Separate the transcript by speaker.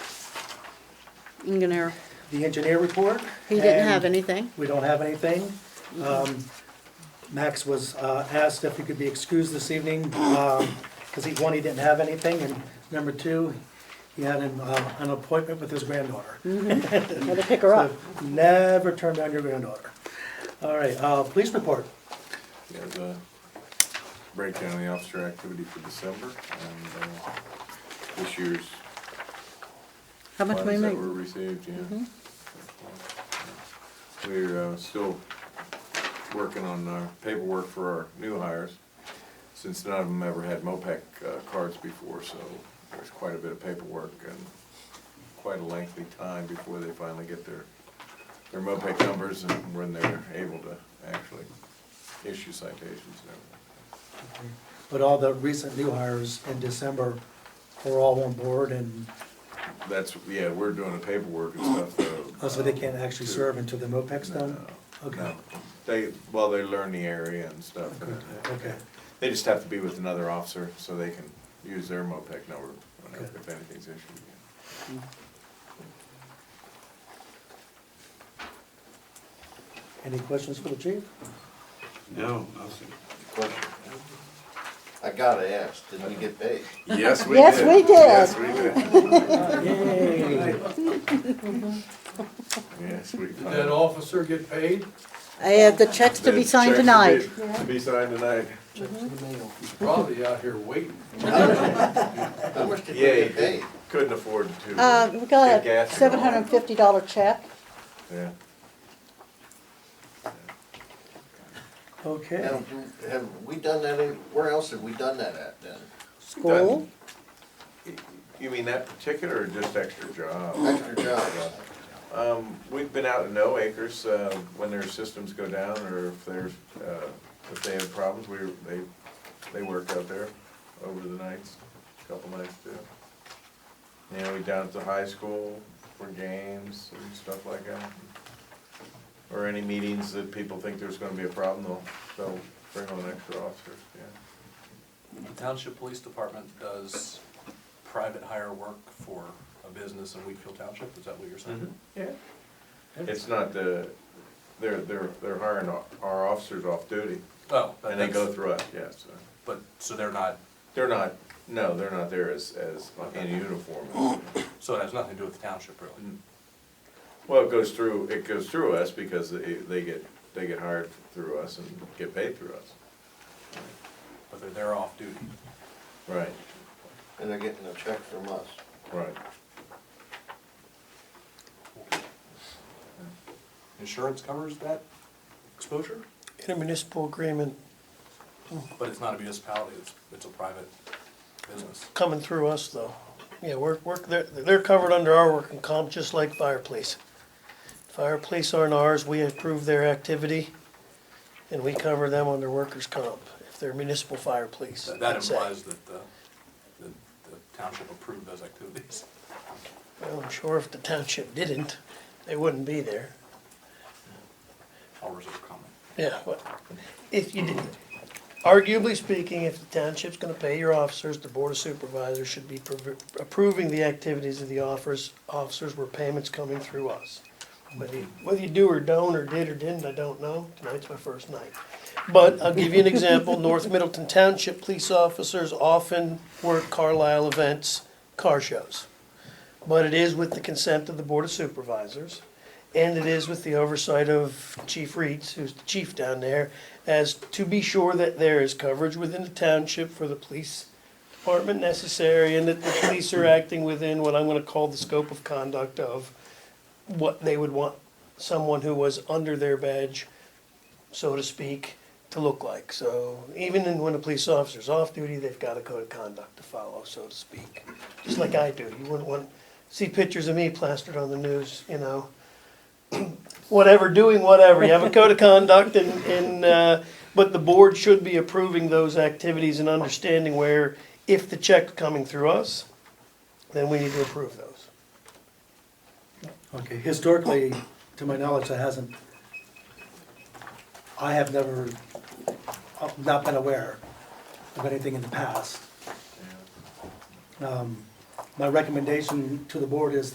Speaker 1: engineer.
Speaker 2: the engineer report.
Speaker 1: He didn't
Speaker 2: and
Speaker 1: have anything.
Speaker 2: We don't have anything. Um, Max was uh, asked if he could be excused this evening, because he, one, he didn't have anything, and number two, he had an, uh, an appointment with his granddaughter.
Speaker 1: Mm. Had to pick her up.
Speaker 2: So Never turn down your granddaughter. All right, uh, police report.
Speaker 3: There's a breakdown of the officer activity for December and uh, this year's
Speaker 1: How much we
Speaker 3: funds that
Speaker 1: make? Mm-hmm.
Speaker 3: were received, yeah. We're uh, still working on uh, paperwork for our new hires, since none of them ever had MOPEC uh, cards before, so there's quite a bit of paperwork and quite a lengthy time before they finally get their, their MOPEC numbers and when they're able to actually issue citations and everything.
Speaker 2: But all the recent new hires in December were all on board, and
Speaker 3: That's, yeah, we're doing the paperwork and stuff, though.
Speaker 2: oh, so they can't actually
Speaker 3: To-
Speaker 2: serve until the MOPEC's done?
Speaker 3: No,
Speaker 2: Okay,
Speaker 3: no. They, well, they learn the area and stuff. and
Speaker 2: okay.
Speaker 3: They just have to be with another officer so they can use their MOPEC number whenever-
Speaker 2: Okay.
Speaker 3: if anything's issued.
Speaker 2: Any questions for the chief?
Speaker 4: No, I was,
Speaker 5: Question. I gotta ask, did we get paid?
Speaker 3: Yes,
Speaker 1: we Yes, did. we did. Yes,
Speaker 3: we did.
Speaker 2: Yay.
Speaker 3: Yes, we did.
Speaker 6: Did that officer get paid?
Speaker 1: I have the checks to be signed tonight.
Speaker 3: To be signed tonight.
Speaker 6: Probably out here waiting.
Speaker 5: How much did we
Speaker 3: Yeah,
Speaker 5: get paid?
Speaker 3: Couldn't afford to.
Speaker 1: Uh, we got
Speaker 3: get
Speaker 1: a
Speaker 3: gas and
Speaker 1: seven
Speaker 3: all
Speaker 1: hundred
Speaker 3: that.
Speaker 1: and fifty dollar check.
Speaker 3: Yeah.
Speaker 2: Okay.
Speaker 5: Now, do- have we done that, in- where else have we done that at then?
Speaker 1: School,
Speaker 3: You mean that particular or just extra job?
Speaker 5: Extra jobs?
Speaker 3: Um, we've been out in no acres, uh, when their systems go down or if there's, uh, if they have problems, we, they, they work out there over the nights, couple nights too. You know, we down at the high school for games and stuff like that. Or any meetings that people think there's gonna be a problem, they'll, they'll bring on extra officers, yeah.
Speaker 7: The Township Police Department does private hire work for a business in Wheatfield Township, is that what you're saying?
Speaker 3: Mm-hmm. It's not the, they're, they're, they're hiring our- our officers off duty
Speaker 7: Oh.
Speaker 3: and they go
Speaker 7: that's-
Speaker 3: through us, yeah, so.
Speaker 7: But, so they're not,
Speaker 3: They're not, no, they're not there as, as in uniform.
Speaker 7: so it has nothing to do with the township
Speaker 3: Mm.
Speaker 7: really?
Speaker 3: Well, it goes through, it goes through us because they, they get, they get hired through us and get paid through us.
Speaker 7: But they're there off duty?
Speaker 3: Right,
Speaker 5: And they're getting a check from us.
Speaker 3: right.
Speaker 7: Insurance covers that exposure?
Speaker 8: intermunicipal agreement
Speaker 7: But it's not a municipality, it's, it's a private business.
Speaker 8: coming through us, though. Yeah, we're, we're, they're, they're covered under our working comp, just like fire police. Fire police aren't ours, we approve their activity, and we cover them under workers' comp, if they're municipal fire police.
Speaker 7: That- That
Speaker 8: I'd say.
Speaker 7: implies that the, that the township approved those activities.
Speaker 8: Well, I'm sure if the township didn't, they wouldn't be there.
Speaker 7: I'll reserve comment.
Speaker 8: Yeah, but if you did, arguably speaking, if the township's gonna pay your officers, the board of supervisors should be prov- approving the activities of the officers, officers where payments coming through us. Whether you, whether you do or don't, or did or didn't, I don't know, tonight's my first night. But I'll give you an example, North Middleton Township police officers often work Carlisle events, car shows. But it is with the consent of the board of supervisors. And it is with the oversight of Chief Reeds, who's the chief down there, as to be sure that there is coverage within the township for the police department necessary and that the police are acting within what I'm gonna call the scope of conduct of what they would want someone who was under their badge, so to speak, to look like. So even in- when a police officer's off duty, they've got a code of conduct to follow, so to speak. Just like I do. You wouldn't want, see pictures of me plastered on the news, you know whatever, doing whatever. You have a code of conduct and, and, uh, but the board should be approving those activities and understanding where if the check's coming through us, then we need to approve those.
Speaker 2: Okay, historically, to my knowledge, that hasn't, I have never, I've not been aware of anything in the past. Um, My recommendation to the board is